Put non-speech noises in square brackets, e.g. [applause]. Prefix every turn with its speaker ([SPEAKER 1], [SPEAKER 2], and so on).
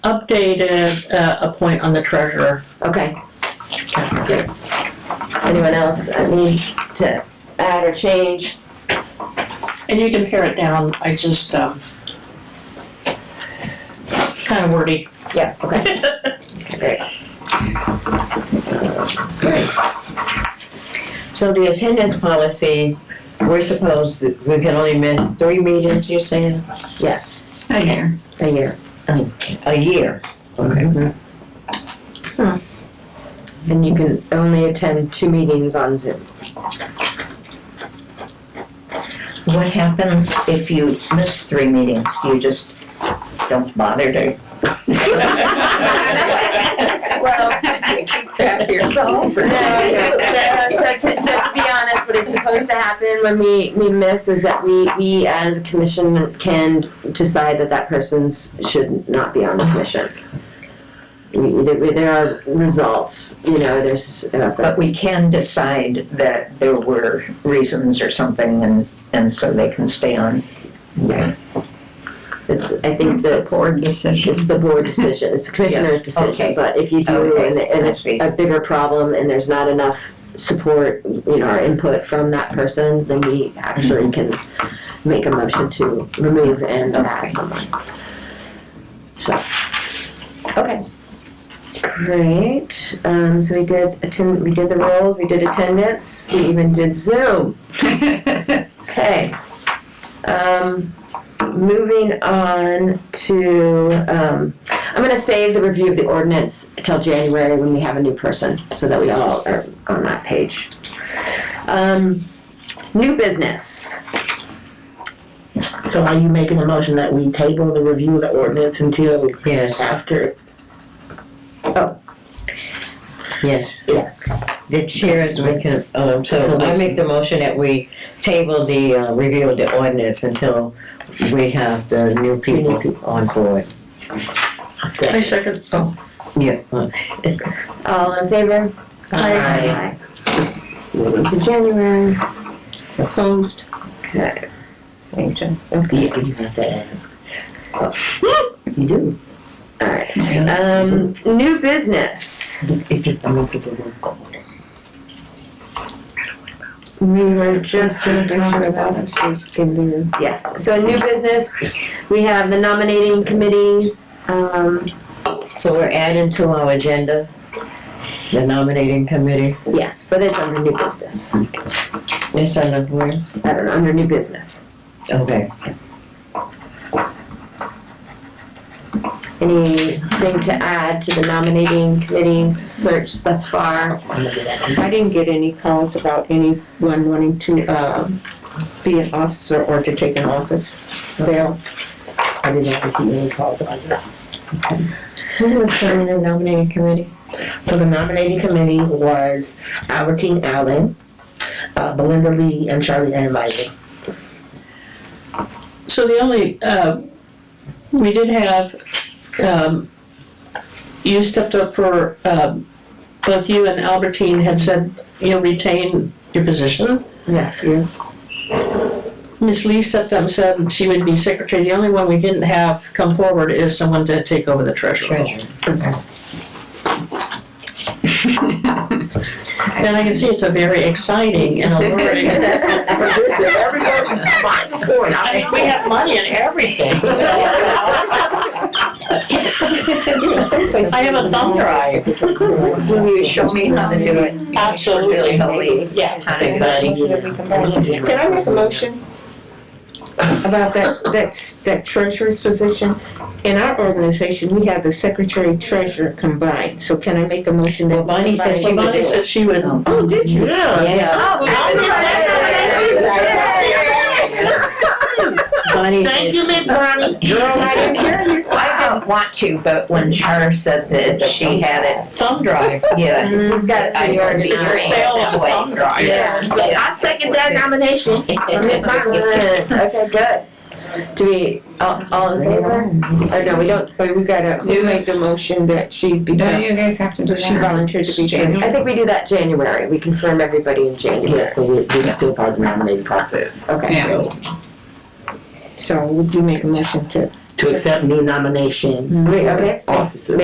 [SPEAKER 1] updated, uh, a point on the treasurer.
[SPEAKER 2] Okay. Good. Anyone else I need to add or change?
[SPEAKER 1] And you can pare it down, I just, um, kind of wordy.
[SPEAKER 2] Yeah, okay, great. Great.
[SPEAKER 3] So the attendance policy, we're supposed, we can only miss three meetings, you're saying,
[SPEAKER 2] Yes,
[SPEAKER 4] Hi there.
[SPEAKER 2] a year.
[SPEAKER 3] a year? Okay.
[SPEAKER 2] And you can only attend two meetings on Zoom.
[SPEAKER 4] What happens if you miss three meetings? You just don't bother to?
[SPEAKER 2] Well,
[SPEAKER 4] keep track of yourself.
[SPEAKER 2] No, no, so to, so to be honest, what is supposed to happen when we, we miss is that we, we as a commission can decide that that person's should not be on the commission. We- There there are results, you know, there's, uh,
[SPEAKER 4] But we can decide that there were reasons or something and, and so they can stay on.
[SPEAKER 2] it's, I think that it's-
[SPEAKER 5] decision.
[SPEAKER 2] it's the board decision, it's the commissioner's
[SPEAKER 4] Yes, okay. Oh,
[SPEAKER 2] decision, but if you do
[SPEAKER 4] Okay,
[SPEAKER 2] and it- and
[SPEAKER 4] that's
[SPEAKER 2] it's
[SPEAKER 4] right.
[SPEAKER 2] a bigger problem and there's not enough support, you know, or input from that person, then we actually can make a motion to remove and
[SPEAKER 4] Okay.
[SPEAKER 2] add someone. So. Okay. Great, um, so we did attend, we did the roles, we did attendance, we even did Zoom. Okay. Um, moving on to, um, I'm gonna save the review of the ordinance till January when we have a new person, so that we all are on that page. Um, new business.
[SPEAKER 6] So are you making a motion that we table the review of the ordinance until
[SPEAKER 3] Yes,
[SPEAKER 6] after?
[SPEAKER 3] yes.
[SPEAKER 2] Yes.
[SPEAKER 3] The chair is making, um, so I make the motion that we table the, uh, review of the ordinance until we have the new people on board.
[SPEAKER 1] [laughs] I second, oh,
[SPEAKER 3] Yeah. Uh,
[SPEAKER 2] All in favor?
[SPEAKER 3] Aye.
[SPEAKER 2] For January.
[SPEAKER 3] Opposed?
[SPEAKER 2] Okay.
[SPEAKER 3] Thank you. Yeah, you have to ask. You do.
[SPEAKER 2] All right. Um, new business.
[SPEAKER 3] I'm gonna put the word.
[SPEAKER 2] We were just gonna talk about. Yes, so new business, we have the nominating committee, um,
[SPEAKER 3] So we're adding to our agenda, the nominating committee.
[SPEAKER 2] yes, but it's under new business,
[SPEAKER 3] It's on the board.
[SPEAKER 2] I don't know, under new business.
[SPEAKER 3] Okay.
[SPEAKER 2] Anything to add to the nominating committee's search thus far?
[SPEAKER 5] I didn't get any calls about anyone wanting to uh, be an officer or to take an office. Bill,
[SPEAKER 6] I did not receive any calls about this.
[SPEAKER 5] who was forming the nominating committee?
[SPEAKER 6] So the nominating committee was Albertine Allen, uh, Belinda Lee, and Charlie Ann Lively.
[SPEAKER 1] so the only, uh, we did have, um, you stepped up for, um, both you and Albertine had said you'll retain your position.
[SPEAKER 5] Yes, yes.
[SPEAKER 1] Ms. Lee stepped up and said she would be secretary. The only one we didn't have come forward is someone to take over the treasurer. role. [laughs] And I can see it's a very exciting
[SPEAKER 6] [laughs]
[SPEAKER 1] and alluring. I mean, we have money in everything,
[SPEAKER 6] [laughs]
[SPEAKER 1] so. I have a thumb drive.
[SPEAKER 3] [laughs]
[SPEAKER 4] Will you show me how to do it?
[SPEAKER 1] Absolutely.
[SPEAKER 4] Really,
[SPEAKER 1] Yeah.
[SPEAKER 5] Can I make a motion about that, that's, that treasurer's position? In our organization, we have the secretary treasurer combined, so can I make a motion
[SPEAKER 3] Well,
[SPEAKER 5] that?
[SPEAKER 3] Bonnie said she would do
[SPEAKER 1] Somebody
[SPEAKER 3] it.
[SPEAKER 1] said she would.
[SPEAKER 5] Oh, did you?
[SPEAKER 3] Yeah.
[SPEAKER 2] Oh,
[SPEAKER 3] Bonnie
[SPEAKER 6] Thank you,
[SPEAKER 3] said,
[SPEAKER 6] Miss Bonnie.
[SPEAKER 4] I didn't want to, but when Char said that she had it,
[SPEAKER 1] Thumb drive.
[SPEAKER 4] yeah.
[SPEAKER 2] Mm, She's got it
[SPEAKER 4] I
[SPEAKER 2] pretty
[SPEAKER 4] would be
[SPEAKER 2] organized.
[SPEAKER 1] It's the sale of the thumb drive.
[SPEAKER 4] Yes.
[SPEAKER 6] So I second that
[SPEAKER 4] [laughs]
[SPEAKER 6] nomination. for Miss Bonnie.
[SPEAKER 2] Good. Okay, good. Do we, all, all in favor? Or no, we don't,
[SPEAKER 5] But we gotta, who made the motion that she's
[SPEAKER 7] Don't
[SPEAKER 5] become,
[SPEAKER 7] you guys have to do
[SPEAKER 5] she
[SPEAKER 7] that?
[SPEAKER 5] volunteered to be treasurer?
[SPEAKER 2] I think we do that January, we confirm everybody in January.
[SPEAKER 6] Yes, but we're, we're still part of the nominating process.
[SPEAKER 2] Okay.
[SPEAKER 7] Yeah.
[SPEAKER 5] So would you make a motion to?
[SPEAKER 3] to accept new nominations
[SPEAKER 8] Wait, okay.
[SPEAKER 3] for officers.